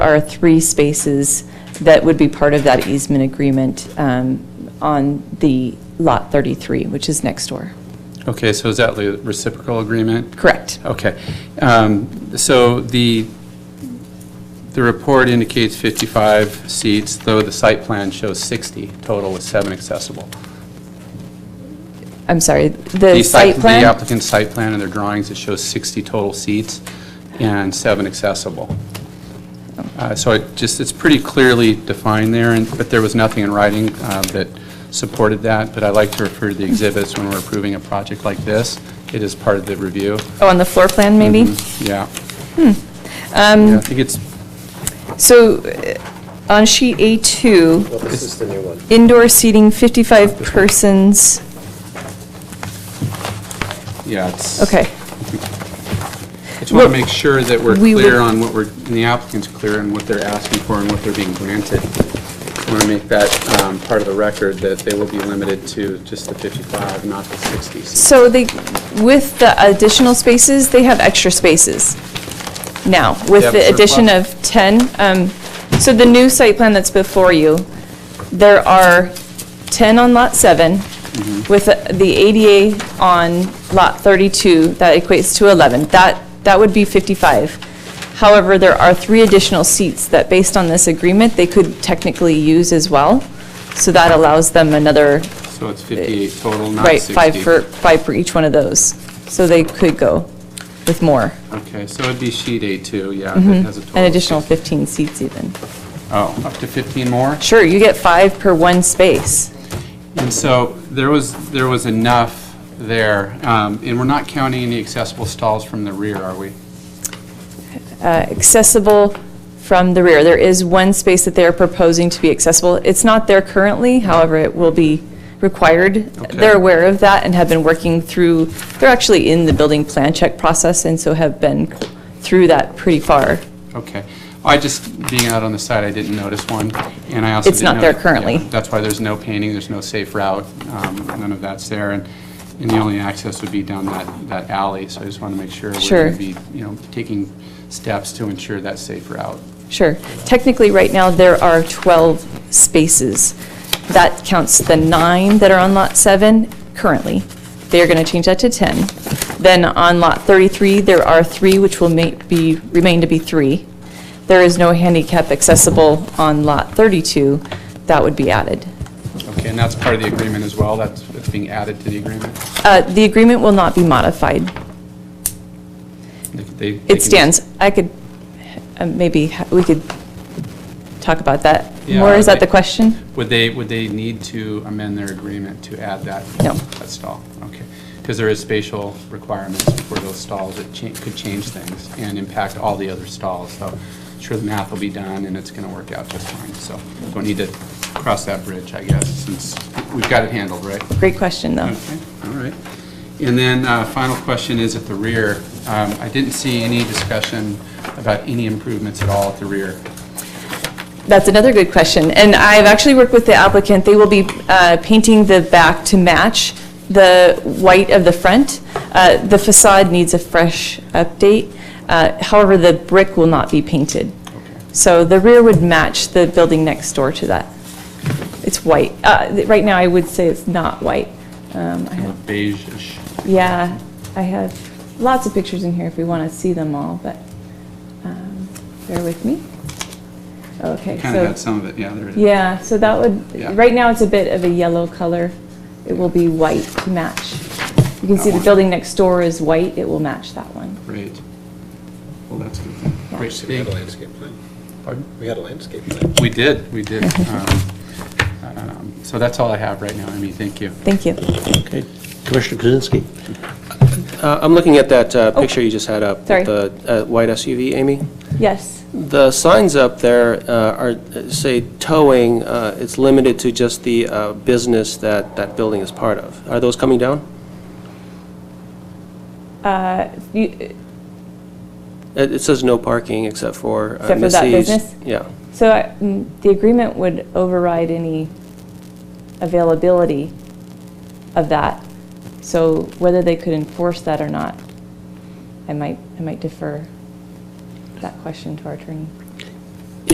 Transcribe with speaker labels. Speaker 1: are three spaces that would be part of that easement agreement um, on the Lot 33, which is next door.
Speaker 2: Okay, so is that the reciprocal agreement?
Speaker 1: Correct.
Speaker 2: Okay. Um, So the, the report indicates 55 seats, though the site plan shows 60 total with seven accessible.
Speaker 1: I'm sorry, the site
Speaker 2: The
Speaker 1: plan?
Speaker 2: applicant's site plan and their drawings, it shows 60 total seats and seven accessible. Uh, So it just, it's pretty clearly defined there, and but there was nothing in writing uh, that supported that, but I like to refer to the exhibits when we're approving a project like this. It is part of the review.
Speaker 1: Oh, on the floor plan, maybe?
Speaker 2: Yeah.
Speaker 1: Hmm.
Speaker 2: Um. I think it's,
Speaker 1: So uh, on sheet A2,
Speaker 3: Well, this is the new one.
Speaker 1: indoor seating, 55 persons,
Speaker 2: yeah, it's.
Speaker 1: okay.
Speaker 2: I just want to make sure that we're
Speaker 1: We would-
Speaker 2: clear on what we're, and the applicant's clear on what they're asking for and what they're being granted. I want to make that um, part of the record, that they will be limited to just the 55, not the 60 seats.
Speaker 1: So they, with the additional spaces, they have extra spaces now,
Speaker 2: Yeah,
Speaker 1: with the
Speaker 2: but they're
Speaker 1: addition
Speaker 2: flat.
Speaker 1: of 10. um, So the new site plan that's before you, there are 10 on Lot 7, with the ADA on Lot 32, that equates to 11. That, that would be 55. However, there are three additional seats that, based on this agreement, they could technically use as well. So that allows them another
Speaker 2: So it's 58 total, not 60.
Speaker 1: Right, five for, five for each one of those. So they could go with more,
Speaker 2: Okay, so it'd be sheet A2, yeah, that has a total.
Speaker 1: Mm-hmm. an
Speaker 2: of
Speaker 1: additional
Speaker 2: 60.
Speaker 1: 15 seats even.
Speaker 2: Oh, up to 15 more?
Speaker 1: Sure, you get five per one space.
Speaker 2: And so there was, there was enough there, um, and we're not counting any accessible stalls from the rear, are we?
Speaker 1: Uh, Accessible from the rear. There is one space that they're proposing to be accessible. It's not there currently, however, it will be required.
Speaker 2: Okay.
Speaker 1: They're aware of that and have been working through, they're actually in the building plan check process and so have been through that pretty far.
Speaker 2: Okay. I just, being out on the side, I didn't notice one, and I also
Speaker 1: It's
Speaker 2: didn't
Speaker 1: not
Speaker 2: know
Speaker 1: there
Speaker 2: that-
Speaker 1: currently.
Speaker 2: yeah, That's why there's no painting, there's no safe route, um, none of that's there, and, and the only access would be down that, that alley, so I just want to make sure
Speaker 1: Sure.
Speaker 2: we're going to be, you know, taking steps to ensure that safe route.
Speaker 1: Sure. Technically, right now, there are 12 spaces. That counts the nine that are on Lot 7 currently. They are going to change that to 10. Then on Lot 33, there are three, which will ma- be, remain to be three. There is no handicap accessible on Lot 32. That would be added.
Speaker 2: Okay, and that's part of the agreement as well, that's, that's being added to the agreement?
Speaker 1: Uh, The agreement will not be modified.
Speaker 2: They- they- they can
Speaker 1: It
Speaker 2: just-
Speaker 1: stands. I could, uh, maybe, ha- we could talk about that
Speaker 2: Yeah,
Speaker 1: more. Is that
Speaker 2: they-
Speaker 1: the question?
Speaker 2: Would they, would they need to amend their agreement to add that?
Speaker 1: No.
Speaker 2: That stall, okay. Because there is spatial requirements for those stalls that cha- could change things and impact all the other stalls. So sure, the math will be done and it's going to work out just fine. So don't need to cross that bridge, I guess, since we've got it handled, right?
Speaker 1: Great question, though.
Speaker 2: Okay, all right. And then, uh, final question is at the rear. Um, I didn't see any discussion about any improvements at all at the rear.
Speaker 1: That's another good question. And I've actually worked with the applicant. They will be uh, painting the back to match the white of the front. Uh, The facade needs a fresh update. Uh, However, the brick will not be painted. So the rear would match the building next door to that. It's white. Uh, th- Right now, I would say it's not white. Um, I
Speaker 2: Kind
Speaker 1: have-
Speaker 2: of beige-ish.
Speaker 1: Yeah, I have lots of pictures in here if we want to see them all, but um, bear with me. Okay, so.
Speaker 2: Kind of got some of it, yeah, there it is.
Speaker 1: Yeah, so that would,
Speaker 2: Yeah.
Speaker 1: right now, it's a bit of a yellow color. It will be white to match. You can
Speaker 2: That
Speaker 1: see the
Speaker 2: one.
Speaker 1: building next door is white, it will match that one.
Speaker 2: Great. Well, that's good. then.
Speaker 1: Yeah.
Speaker 2: Great,
Speaker 3: So we had
Speaker 2: thank
Speaker 3: a landscape plan.
Speaker 2: Pardon?
Speaker 3: We had a landscape plan.
Speaker 2: We did, we did. Um, um, So that's all I have right now, Amy, thank you.
Speaker 1: Thank you.
Speaker 4: Okay, Commissioner Kuzinski.
Speaker 5: Uh, I'm looking at that uh, picture you just had up. with
Speaker 1: Oh. sorry.
Speaker 5: The uh, white SUV, Amy.
Speaker 1: Yes,
Speaker 5: The signs up there uh, are, say, towing, uh, it's limited to just the uh, business that that building is part of. Are those coming down?
Speaker 1: Uh, You-
Speaker 5: It it says no parking except for uh,
Speaker 1: Except for
Speaker 5: Missy's.
Speaker 1: that business?
Speaker 5: Yeah.
Speaker 1: so I- mm, the agreement would override any availability of that. So whether they could enforce that or not, I might, I might defer that question to our attorney.